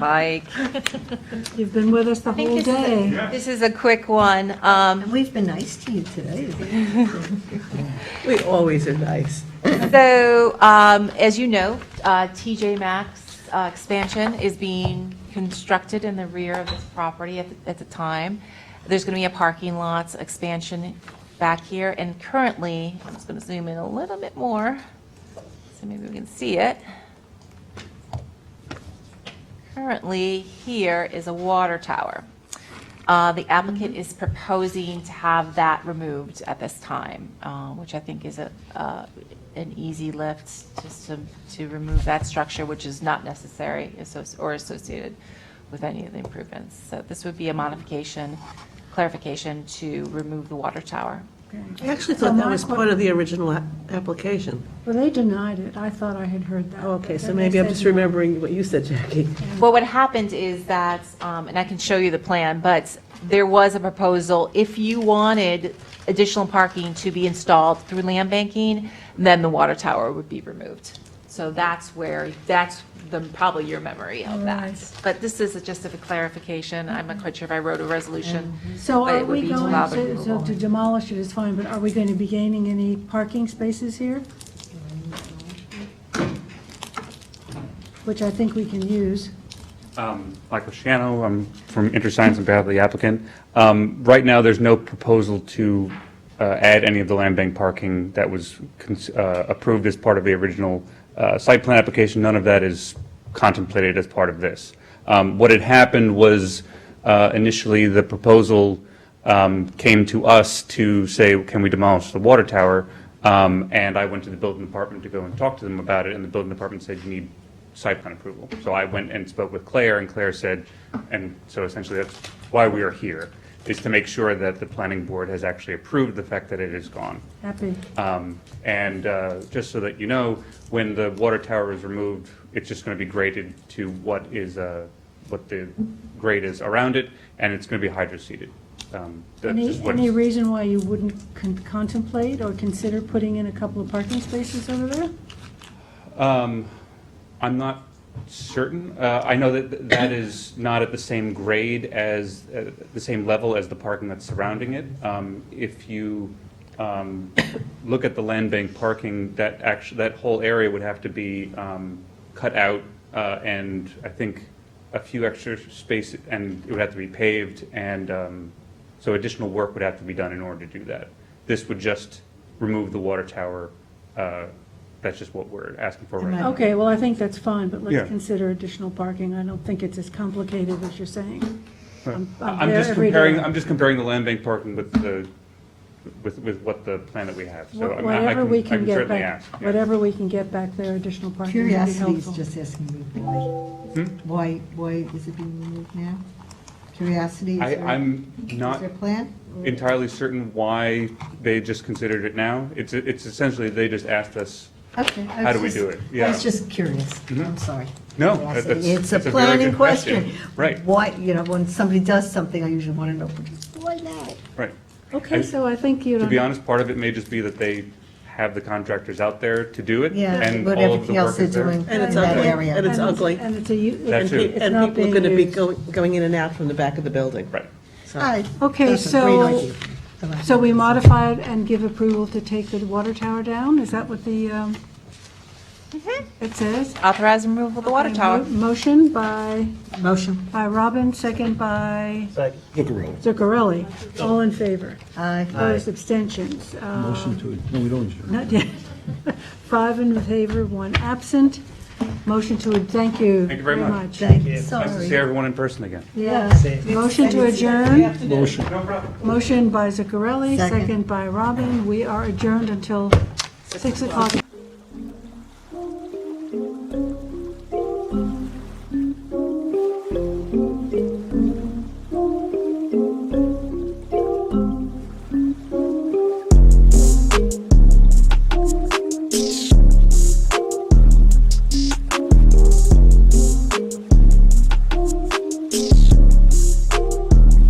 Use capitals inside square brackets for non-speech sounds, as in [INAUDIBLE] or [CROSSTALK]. Mike, You've been with us the think whole this is a- day. this is a quick one. Um, And we've been nice to [LAUGHS] you today. We always are nice. So, um, as you know, uh, TJ Maxx uh, expansion is being constructed in the rear of this property at the- at the time. There's going to be a parking lots expansion back here, and currently, I'm just going to zoom in a little bit more, so maybe we can see it. Currently, here is a water tower. Uh, The applicant is proposing to have that removed at this time, uh, which I think is a, uh, an easy lift, just to, to remove that structure, which is not necessary asso- or associated with any of the improvements. So this would be a modification, clarification to remove the water tower. I actually thought that was part of the original a- application. Well, they denied it. I thought I had heard that. Oh, okay, so They maybe I'm said just no. remembering what you said, Jackie. Well, what happened is that, um, and I can show you the plan, but there was a proposal, if you wanted additional parking to be installed through land banking, then the water tower would be removed. So that's where, that's the, probably your memory of that. Right. But this is just a clarification, I'm not quite sure if I wrote a resolution. So but it are would we be to allow going, the to- so removal. to demolish it is fine, but are we going to be gaining any parking spaces here? Which I think we can use. Um, Michael Shano, I'm from InterScience on behalf of the applicant. Um, Right now, there's no proposal to uh, add any of the land bank parking that was cons- uh, approved as part of the original uh, site plan application. None of that is contemplated as part of this. Um, What had happened was uh, initially, the proposal um, came to us to say, can we demolish the water tower? Um, And I went to the building department to go and talk to them about it, and the building department said, you need site plan approval. So I went and spoke with Claire, and Claire said, and so essentially that's why we are here, is to make sure that the planning board has actually approved the fact that it is gone. Happy. Um, And uh, just so that you know, when the water tower is removed, it's just going to be graded to what is, uh, what the grade is around it, and it's going to be hydroseeded. Um, That's Any, just what- any reason why you wouldn't con- contemplate or consider putting in a couple of parking spaces over there? Um, I'm not certain. Uh, I know that th- that is not at the same grade as, uh, the same level as the parking that's surrounding it. Um, If you um, look at the land bank parking, that actually, that whole area would have to be um, cut out uh, and I think a few extra space, and it would have to be paved, and um, so additional work would have to be done in order to do that. This would just remove the water tower. uh, That's just what we're asking for right now. Okay, well, I think that's fine, but Yeah. let's consider additional parking. I don't think it's as complicated as you're saying. I'm I'm Uh, I'm there just every comparing, day. I'm just comparing the land bank parking with the, with, with what the plan that we have. So I mean, I Whatever we I can get certainly back, ask, yeah. whatever we can get back there, additional parking would be Curiosity is helpful. just asking me why. Hmm? Why, why is it being removed now? Curiosity is. I, there- I'm Is not there a plan? entirely certain why they just considered it now. It's, it's essentially, they just asked us, Okay. I How do was we just- do it? I Yeah. Mm-hmm. was just curious. I'm sorry. No, that- Curiosity. that's- It's a that's a very planning good question. question. Right. Why, you know, when somebody does something, I usually want to know, why now? right. Okay, I- so I think you To be don't, honest, part of it may just be that they have the contractors out there to do it. Yeah, and what all of the everything else work they're is there. doing And in it's that ugly, area. and it's And- ugly. and it's a, u- That it's too. it's And not people are being going to be used. go- going in and out from the back of the building. Right. Hi. Okay, That's a so- great idea. I like So that. we modify it and give approval to take the water tower down? Is that what the, um, it says? Authorize removal of Mm-hmm. the water Okay, tower. mo- Motion by, Motion. by Robin, second by Zuccarello. Zuccarelli. All in favor? Aye. Opposed, abstentions? Uh, Motion to, no, we don't adjourn. Not yet. [LAUGHS] Five in favor, one absent. Motion to, thank you. Thank you very much. Thank you, Nice to sorry. see everyone in person again. Yeah. Motion to adjourn. Motion. Motion by Zuccarelli, Second. second by Robin. We are adjourned until 6 o'clock.